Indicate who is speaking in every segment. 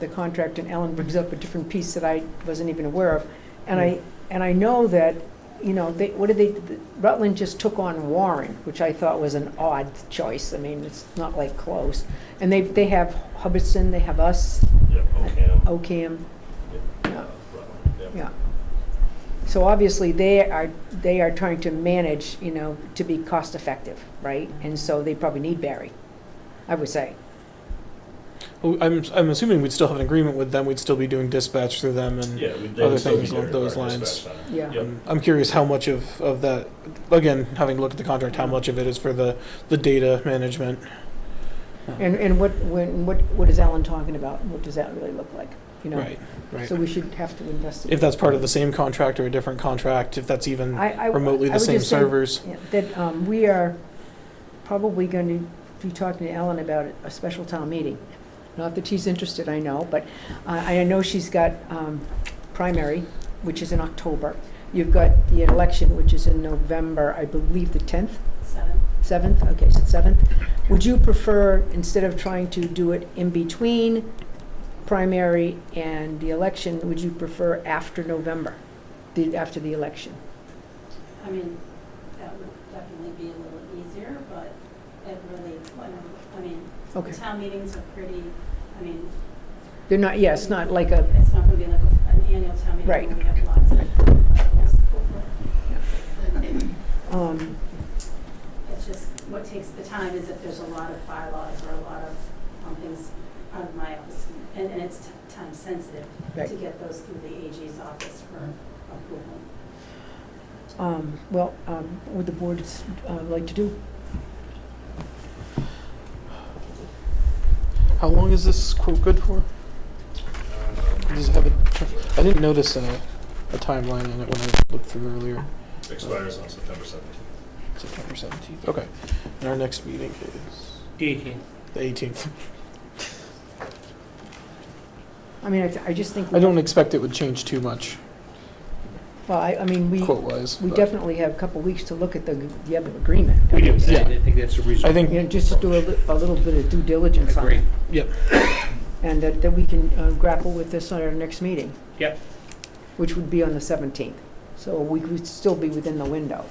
Speaker 1: with the contract, and Ellen brings up a different piece that I wasn't even aware of. And I, and I know that, you know, they, what did they, Rutland just took on Warren, which I thought was an odd choice. I mean, it's not like close. And they, they have Hubbardson, they have us,
Speaker 2: Yep, OCAM.
Speaker 1: OCAM.
Speaker 2: uh,
Speaker 1: Yeah.
Speaker 2: Rutland, yep.
Speaker 1: Yeah. So obviously, they are, they are trying to manage, you know, to be cost-effective, right? And so they probably need Barry, I would say.
Speaker 3: Well, I'm, I'm assuming we'd still have an agreement with them. We'd still be doing dispatch through them, and
Speaker 2: Yeah, we
Speaker 3: Other
Speaker 2: did still be
Speaker 3: things
Speaker 2: doing
Speaker 3: along those
Speaker 2: our
Speaker 3: lines.
Speaker 2: dispatch center.
Speaker 1: Yeah.
Speaker 2: Yep.
Speaker 3: um, I'm curious how much of, of that. Again, having looked at the contract, how much of it is for the, the data management?
Speaker 1: And, and what, when, what, what is Alan talking about? What does that really look like? You know?
Speaker 3: Right, right.
Speaker 1: So we should have to investigate.
Speaker 3: if that's part of the same contract or a different contract, if that's even
Speaker 1: I- I-
Speaker 3: remotely
Speaker 1: I
Speaker 3: the
Speaker 1: would
Speaker 3: same
Speaker 1: just say
Speaker 3: servers.
Speaker 1: That um, we are probably going to be talking to Ellen about a special town meeting. Not that she's interested, I know, but uh, I know she's got um, primary, which is in October. You've got the election, which is in November, I believe the 10th,
Speaker 4: Seven.
Speaker 1: 7th? Okay, so 7th. Would you prefer, instead of trying to do it in between primary and the election, would you prefer after November, the- after the election?
Speaker 4: I mean, that would definitely be a little easier, but it really, I mean,
Speaker 1: Okay.
Speaker 4: town meetings are pretty, I mean,
Speaker 1: They're not, Uh, yeah, it's not like a,
Speaker 4: it's not going to be like a- an annual town meeting.
Speaker 1: Right.
Speaker 4: where We have lots of.
Speaker 1: um,
Speaker 4: It's just, what takes the time is if there's a lot of bylaws or a lot of um, things out of my office. And, and it's t- time sensitive
Speaker 1: Right.
Speaker 4: to get those through the AG's office for approval.
Speaker 1: um, well, um, what would the board uh, like to do?
Speaker 3: How long is this quote good for?
Speaker 2: Um,
Speaker 3: Does it have a, I didn't notice a, a timeline on it when I looked through earlier.
Speaker 2: Expires on September 17th.
Speaker 3: September 17th. Okay. And our next meeting is the 18th.
Speaker 1: I mean, I, th- I just think, we-
Speaker 3: I don't expect it would change too much,
Speaker 1: well, I, I mean, we,
Speaker 3: quote wise.
Speaker 1: we definitely have a couple weeks to look at the, the other agreement.
Speaker 5: We do, I
Speaker 3: Yeah.
Speaker 5: I think that's a reasonable.
Speaker 3: I think-
Speaker 1: You know, just do a, li- a little bit of due diligence on
Speaker 5: Agree.
Speaker 1: it,
Speaker 3: Yep.
Speaker 1: and that, that we can uh, grapple with this on our next meeting.
Speaker 5: Yep.
Speaker 1: Which would be on the seventeenth, so we would still be within the window.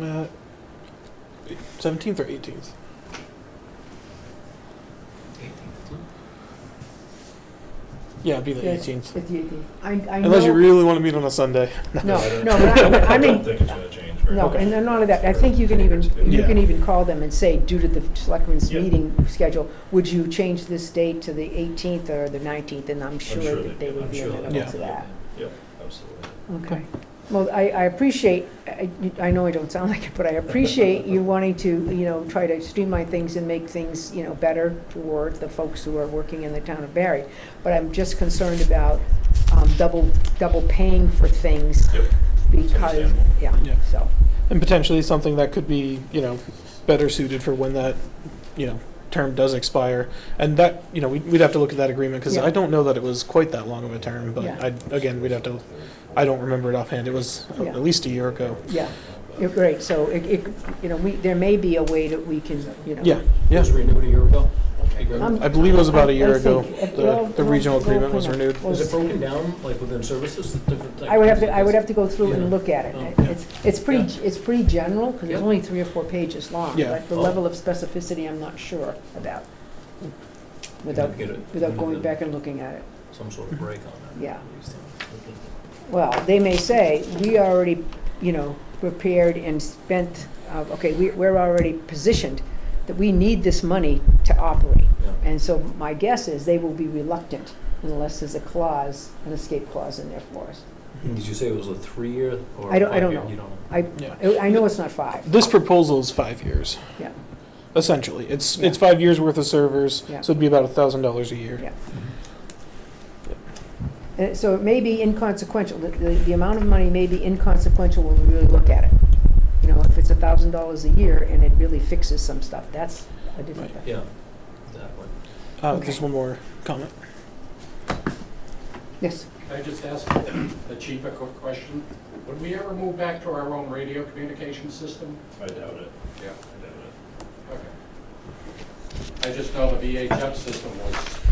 Speaker 3: Uh, 17th or 18th? Yeah, it'd be the
Speaker 1: Yeah,
Speaker 3: 18th.
Speaker 1: It's the eighteenth. I, I know.
Speaker 3: Unless you really want to meet on a Sunday.
Speaker 1: No,
Speaker 2: I don't-
Speaker 1: no, but I- I
Speaker 2: I
Speaker 1: mean,
Speaker 2: don't think it's going to change very
Speaker 1: No,
Speaker 2: much.
Speaker 1: and none of that, I think you can even, you
Speaker 3: Yeah.
Speaker 1: can even call them and say, due to the selectmen's
Speaker 2: Yeah.
Speaker 1: meeting schedule, would you change this date to the 18th or the 19th? And I'm
Speaker 2: I'm
Speaker 1: sure that they would
Speaker 2: I'm
Speaker 1: be
Speaker 2: sure
Speaker 1: amenable
Speaker 2: they-
Speaker 3: Yeah.
Speaker 1: to that.
Speaker 2: Yep, absolutely.
Speaker 1: Okay. Well, I, I appreciate, I, I know I don't sound like it, but I appreciate you wanting to, you know, try to streamline things and make things, you know, better for the folks who are working in the town of Barry. But I'm just concerned about um, double, double paying for things
Speaker 2: Yep.
Speaker 1: because,
Speaker 2: understandable.
Speaker 1: yeah,
Speaker 3: Yeah.
Speaker 1: so.
Speaker 3: And potentially something that could be, you know, better suited for when that, you know, term does expire. And that, you know, we'd, we'd have to look at that agreement because
Speaker 1: Yeah.
Speaker 3: I don't know that it was quite that long of a term, but
Speaker 1: Yeah.
Speaker 3: I, again, we'd have to, I don't remember it offhand. It was
Speaker 1: Yeah.
Speaker 3: at least a year ago.
Speaker 1: Yeah, you're right, so it, it, you know, we, there may be a way that we can, you know.
Speaker 3: Yeah,
Speaker 5: It
Speaker 3: yeah.
Speaker 5: was renewed a year ago.
Speaker 1: Um,
Speaker 3: I believe it was about a year
Speaker 1: I
Speaker 3: ago.
Speaker 1: think if-
Speaker 3: The, the
Speaker 1: well,
Speaker 3: regional
Speaker 1: well,
Speaker 3: agreement was
Speaker 1: well,
Speaker 3: renewed.
Speaker 1: well,
Speaker 5: Is it broken down, like within services, the different?
Speaker 1: I would have to, I would have to go through and
Speaker 5: Yeah.
Speaker 1: look at it.
Speaker 5: Oh,
Speaker 1: I-
Speaker 5: yeah.
Speaker 1: It's, it's pretty, it's pretty general, because it's
Speaker 5: Yeah.
Speaker 1: only three or four pages long.
Speaker 3: Yeah.
Speaker 1: But the
Speaker 5: Oh.
Speaker 1: level of specificity, I'm not sure about, without,
Speaker 5: Get it.
Speaker 1: without going back and looking at it.
Speaker 5: Some sort of break on that.
Speaker 1: Yeah.
Speaker 5: at least.
Speaker 1: Well, they may say, we already, you know, prepared and spent, uh, okay, we- we're already positioned that we need this money to operate.
Speaker 5: Yeah.
Speaker 1: And so my guess is they will be reluctant unless there's a clause, an escape clause in there for us.
Speaker 5: Did you say it was a three-year or?
Speaker 1: I don't- I
Speaker 5: five-year?
Speaker 1: don't know.
Speaker 5: You don't know.
Speaker 1: I,
Speaker 3: Yeah.
Speaker 1: I know it's not five.
Speaker 3: This proposal is five years.
Speaker 1: Yeah.
Speaker 3: Essentially, it's,
Speaker 1: Yeah.
Speaker 3: it's five years worth of servers, so
Speaker 1: Yeah.
Speaker 3: it'd be about a thousand dollars a year.
Speaker 1: Yeah. Uh, So it may be inconsequential, the, the the amount of money may be inconsequential when we really look at it. You know, if it's a thousand dollars a year and it really fixes some stuff, that's a different thing.
Speaker 5: Yeah, exactly.
Speaker 3: Uh,
Speaker 1: Okay.
Speaker 3: just one more comment.
Speaker 1: Yes,
Speaker 6: Can I just ask the chief a quick question? Would we ever move back to our own radio communication system?
Speaker 2: I doubt it.
Speaker 6: Yeah.
Speaker 2: I doubt it.
Speaker 6: Okay. I just know the VHF system was